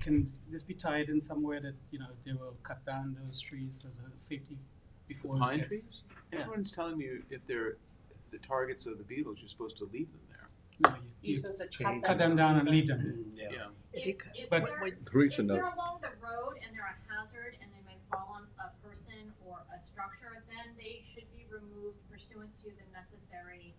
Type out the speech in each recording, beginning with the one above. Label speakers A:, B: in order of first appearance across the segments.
A: can this be tied in somewhere that, you know, they will cut down those trees as a safety before? it
B: Pine
A: gets-
B: trees?
A: Yeah.
B: Everyone's telling you if they're the targets of the beetles, you're supposed to leave them there.
A: No, you,
C: You're
A: you
C: supposed to
D: Can you
C: cut
A: cut them down and leave them.
D: Yeah.
C: If
E: If,
C: you
E: if
C: could-
E: they're, if
A: But-
E: they're
F: Reach a note.
E: along the road and they're a hazard and they may fall on a person or a structure, then they should be removed pursuant to the necessary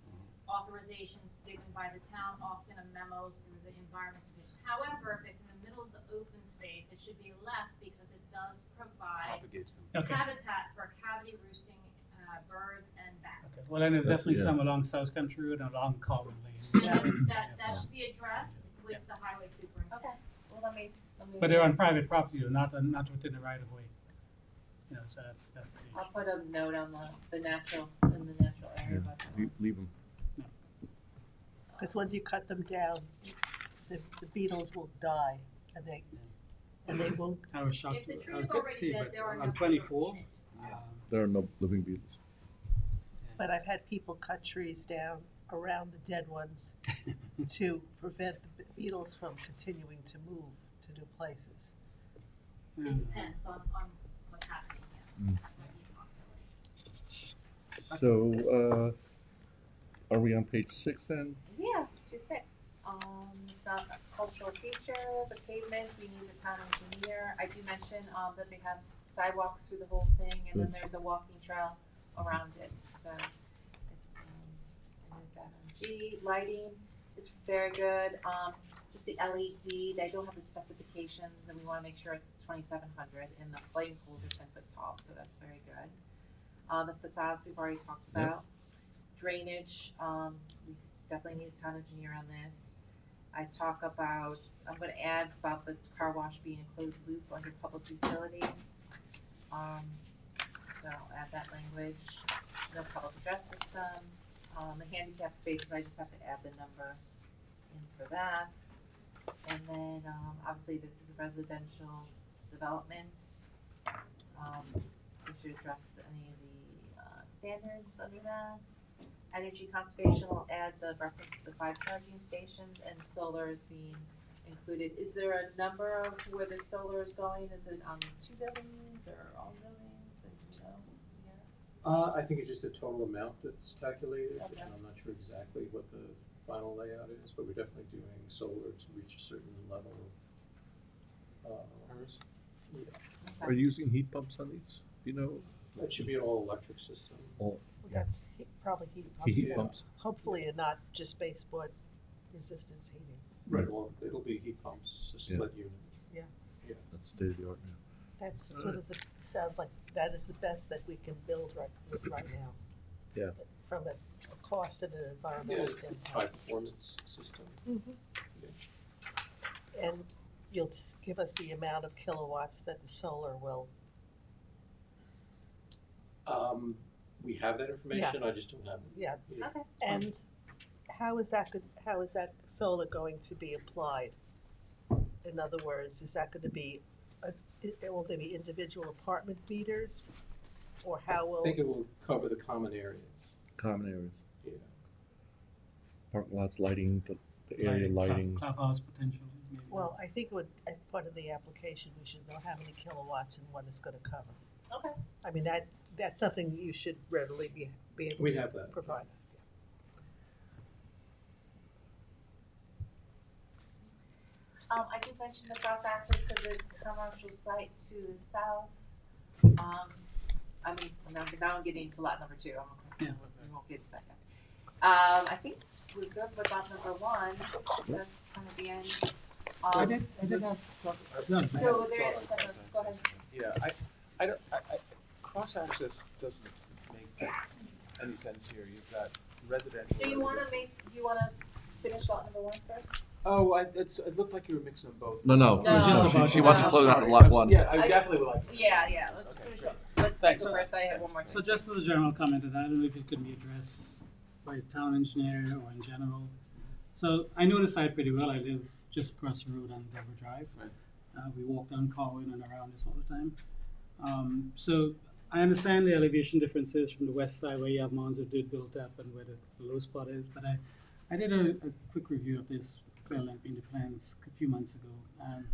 E: authorizations given by the town, often a memo through the environment division. However, if it's in the middle of the open space, it should be left because it does provide
B: Propagates them.
A: Okay.
E: habitat for cavity roosting, uh, birds and
A: Okay,
E: bats.
A: well, then there's
F: That's-
A: definitely
F: yeah.
A: some along South Country Road and along Carbon Lane.
E: And then that, that should be addressed with the highway superintendent.
C: Okay, well, let me, s- let me.
A: But they're on private property, though, not, not within the right of way. You know, so that's, that's the
C: I'll
E: Um,
A: issue.
C: put a note on the, the natural, in the natural area. about that.
F: Le- Leave them.
G: Because once you cut them down, the, the beetles will die and they, and they won't,
A: I was shocked.
E: If the
A: I
E: tree
A: was
E: is
A: good to
E: already
A: see,
E: dead,
A: but
E: there are no.
A: on
E: trees
A: twenty-four,
E: needed.
A: um,
F: There are no living beetles.
G: but I've had people cut trees down around the dead ones to prevent the beetles from continuing to move to new places.
E: It
A: mm.
E: depends on, on what's happening, yeah.
F: Mm.
E: That might be a possibility.
F: So, uh, are we on page six then?
C: Yeah, let's do six. Um, it's not a cultural feature, the pavement, we need the town engineer. I do mention, um, that they have sidewalks through the whole thing and then there's a walking trail around it, so it's, um, I moved that on. G, lighting, it's very good. Um, just the LED, they don't have the specifications and we wanna make sure it's twenty-seven hundred and the flame poles are ten foot tall, so that's very good. Uh, the facades we've already talked
F: Yep.
C: about. Drainage, um, we s- definitely need a town engineer on this. I talk about, I'm gonna add about the car wash being a closed loop under public utilities. Um, so I'll add that language, no public address system, um, the handicap spaces, I just have to add the number in for that. And then, um, obviously, this is residential development. Um, we should address any of the, uh, standards under that energy conservation will add the reference to the five charging stations and solar is being included. Is there a number of where the solar is going? Is it on two buildings or all buildings and you know? yeah?
D: Uh, I think it's just a total amount that's calculated,
C: Okay.
D: and I'm not sure exactly what the final layout is, but we're definitely doing solar to reach a certain level of, uh, yeah,
F: Are you using heat pumps on these? Do you know?
D: it should be an all-electric system.
G: Well, That's he- probably heat pumps.
F: Heat
D: Yeah.
F: pumps?
G: Hopefully, and not just baseboard resistance heating.
D: Right. Well, it'll be heat pumps, a split unit.
F: That's state of the art now.
G: That's sort of the, sounds like that is the best that we can build right, with right now.
F: Yeah.
G: From a a cost and an
D: Yeah,
G: environmental
D: it's it's
G: standpoint.
D: high-performance system.
G: Mm-hmm. And you'll s- give us the amount of kilowatts that the solar will,
D: Um, we have that information, I just don't have it.
G: yeah.
D: Yeah.
C: Okay.
G: And how is that, go- how is that solar going to be applied? In other words, is that gonna be, a- i- will there be individual apartment meters? Or how
D: I
G: will,
D: think it will cover the common areas,
F: Common areas,
D: yeah.
F: park lots, lighting, the, the area
A: Like club-
F: lighting.
A: Clubhouse potentially, maybe.
G: well, I think would, as part of the application, we should know how many kilowatts and what it's gonna cover.
C: Okay.
G: I mean, that, that's something you should readily be, be able
D: We
G: to
D: have that.
G: provide us,
C: Um, I did mention the cross access because it's a commercial site to the south. Um, I mean, now, now I'm getting into lot number two, I'm,
A: Yeah.
C: we won't get to that yet. Um, I think we're good with lot number one, that's kind of the end.
A: I
C: Um,
A: did, I did have, uh,
B: No,
C: No, there is a second, go ahead.
B: Yeah, I, I don't, I, I, cross-access doesn't make any sense here, you've got residential.
C: Do you wanna make, do you wanna finish lot number one first?
B: Oh, I, it's, it looked like you were mixing them both.
F: No,
C: No.
F: no.
B: Oh,
C: She- she
B: okay.
C: wants
B: I'm
C: to
B: sorry. I'm s- Yeah, I
C: I-
B: definitely would like.
C: Yeah, yeah, let's
B: Okay,
C: finish
B: great.
C: up. Let's make
A: Thanks.
C: a first, I have one more.
A: so just as a general comment, and I don't know if it could be addressed by town engineer or in general. So I know the site pretty well, I live just across the road on Dover Drive.
B: Right.
A: Uh, we walk down Carwin and around this all the time. Um, so I understand the elevation differences from the west side where you have mounds of dune built up and where the low spot is, but I, I did a, a quick review of this, plan, I mean, the plans a few months ago. Um, And